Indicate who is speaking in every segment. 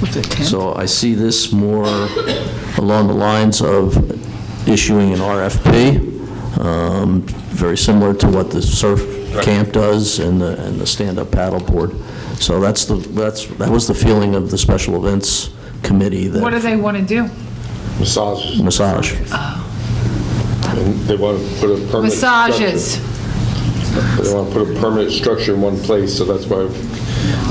Speaker 1: What's it, 10?
Speaker 2: So I see this more along the lines of issuing an RFP, um, very similar to what the surf camp does and the, and the stand-up paddleboard. So that's the, that's, that was the feeling of the special events committee
Speaker 3: What do
Speaker 2: that,
Speaker 3: they want to do?
Speaker 4: Massages,
Speaker 2: massage.
Speaker 4: and they want to put a permanent.
Speaker 3: Massages.
Speaker 4: structure- They want to put a permanent structure in one place, so that's why,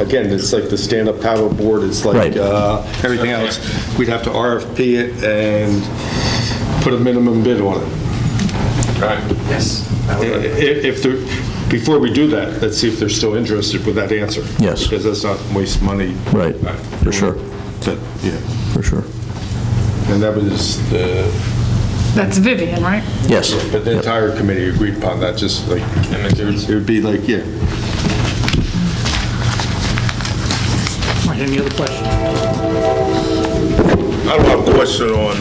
Speaker 4: again, it's like the stand-up paddle board, it's like
Speaker 2: Right.
Speaker 4: uh, everything else. We'd have to RFP it and put a minimum bid on it.
Speaker 5: Yes.
Speaker 4: I- i- If, they're before we do that, let's see if they're still interested with that answer.
Speaker 2: Yes.
Speaker 4: Because that's not waste money.
Speaker 2: Right, for sure,
Speaker 4: That- Yeah,
Speaker 2: for sure.
Speaker 4: and that was the,
Speaker 3: That's Vivian, right?
Speaker 2: Yes.
Speaker 4: but the entire committee agreed upon that, just like, it would be like, yeah,
Speaker 6: All right, any other questions?
Speaker 7: I don't have a question on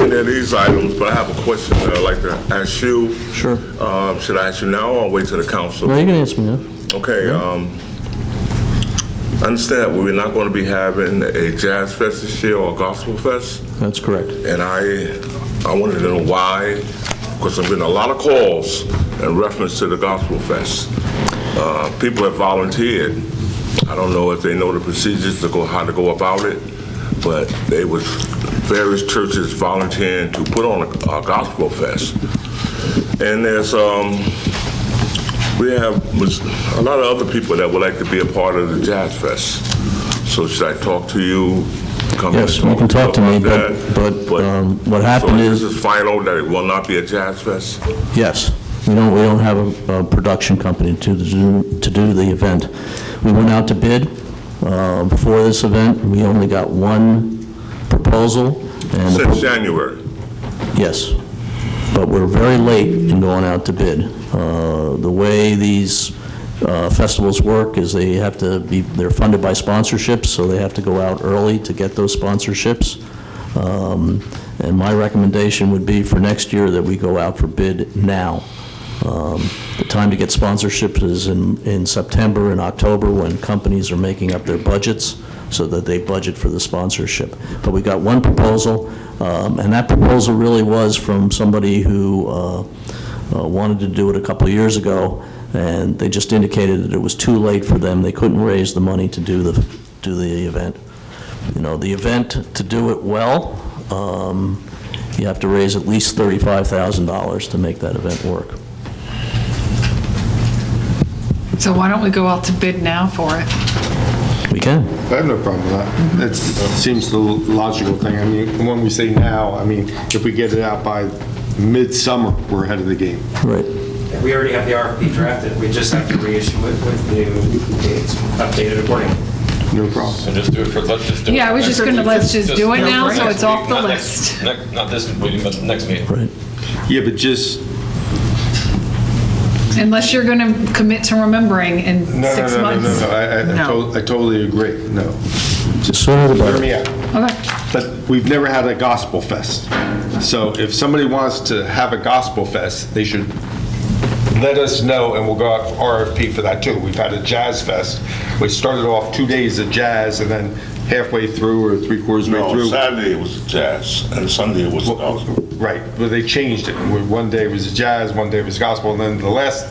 Speaker 7: any of these items, but I have a question that I'd like to ask you.
Speaker 2: Sure.
Speaker 7: Um, Should I ask you now or wait till the council?
Speaker 2: No, you can answer me now.
Speaker 7: Okay, um, I understand we're not going to be having a jazz fest this year or a gospel fest,
Speaker 2: That's correct.
Speaker 7: and I, I wanted to know why, because there've been a lot of calls in reference to the gospel fest. Uh, People have volunteered. I don't know if they know the procedures to go, how to go about it, but they was various churches volunteering to put on a a gospel fest. And there's, um, we have a lot of other people that would like to be a part of the Jazz Fest. So should I talk to you? Come and
Speaker 2: Yes, you can talk to me, but,
Speaker 7: about
Speaker 2: but
Speaker 7: that?
Speaker 2: um, what
Speaker 7: So
Speaker 2: happened
Speaker 7: this
Speaker 2: is,
Speaker 7: is final, that it will not be a Jazz Fest?
Speaker 2: Yes. We don't, we don't have a, a production company to do, to do the event. We went out to bid, uh, for this event. We only got one proposal and. the pro-
Speaker 7: Since January.
Speaker 2: Yes, but we're very late in going out to bid. Uh, The way these uh, festivals work is they have to be, they're funded by sponsorships, so they have to go out early to get those sponsorships. Um, And my recommendation would be for next year that we go out for bid now. Um, The time to get sponsorships is in, in September and October, when companies are making up their budgets, so that they budget for the sponsorship. But we got one proposal, um, and that proposal really was from somebody who uh, uh, wanted to do it a couple of years ago, and they just indicated that it was too late for them, they couldn't raise the money to do the, do the event. You know, the event, to do it well, um, you have to raise at least $35,000 to make that event work.
Speaker 3: So why don't we go out to bid now for it?
Speaker 2: We can.
Speaker 4: I have no problem with that. That seems the logical thing. I mean, when we say now, I mean, if we get it out by midsummer, we're ahead of the game.
Speaker 2: Right.
Speaker 5: We already have the RFP drafted, we just have to reissue it with new dates, updated accordingly.
Speaker 4: No problem.
Speaker 8: So just do it for, let's just do it.
Speaker 3: Yeah, I was just gonna, let's just do it now, so it's off the
Speaker 8: Not next-
Speaker 3: list.
Speaker 8: nec- Not this meeting, but next meeting.
Speaker 2: Right.
Speaker 4: Yeah, but just,
Speaker 3: Unless you're going to commit to remembering in
Speaker 4: no, no,
Speaker 3: six
Speaker 4: no, no,
Speaker 3: months.
Speaker 4: no, I- I- I
Speaker 3: No.
Speaker 4: tot- I totally agree, no.
Speaker 2: The sooner the
Speaker 4: Hear
Speaker 2: better.
Speaker 4: me out.
Speaker 3: Okay,
Speaker 4: But we've never had a gospel fest. So if somebody wants to have a gospel fest, they should let us know, and we'll go out for RFP for that too. We've had a jazz fest, which started off two days of jazz, and then halfway through or three quarters way
Speaker 7: No,
Speaker 4: through.
Speaker 7: Saturday it was jazz, and Sunday it was gospel.
Speaker 4: oh, Right, but they changed it. Where One day it was jazz, one day it was gospel, and then the last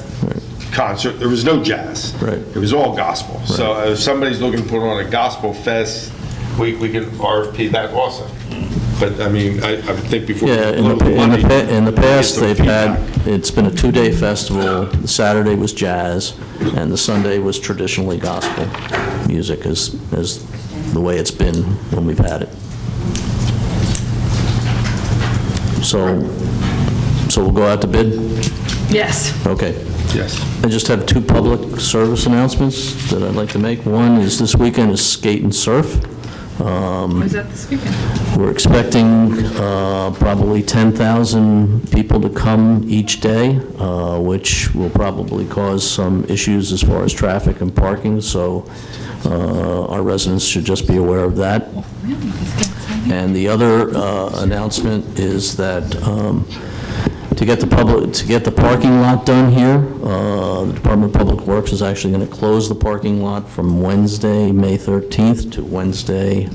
Speaker 4: concert, there was no jazz.
Speaker 2: Right.
Speaker 4: It was all gospel. So uh, if somebody's looking to put on a gospel fest, we, we can RFP that also. But I mean, I, I would think before. we
Speaker 2: Mm. Yeah, in
Speaker 4: blow
Speaker 2: the, in the,
Speaker 4: money,
Speaker 2: pa- in the
Speaker 4: we get
Speaker 2: past,
Speaker 4: some
Speaker 2: they've had,
Speaker 4: feedback.
Speaker 2: it's been a two-day festival. The Saturday was jazz, and the Sunday was traditionally gospel music, is, is the way it's been when we've had it. So, so we'll go out to bid?
Speaker 3: yes.
Speaker 2: Okay.
Speaker 4: Yes.
Speaker 2: I just have two public service announcements that I'd like to make. One is this weekend is skate and surf. Um,
Speaker 3: Was that this weekend?
Speaker 2: We're expecting uh, probably 10,000 people to come each day, uh, which will probably cause some issues as far as traffic and parking, so uh, our residents should just be aware of that.
Speaker 3: Oh,
Speaker 2: And the other uh, announcement is that um, to get the public, to get the parking lot done here, uh, the Department of Public Works is actually going to close the parking lot from Wednesday, May 13th, to Wednesday,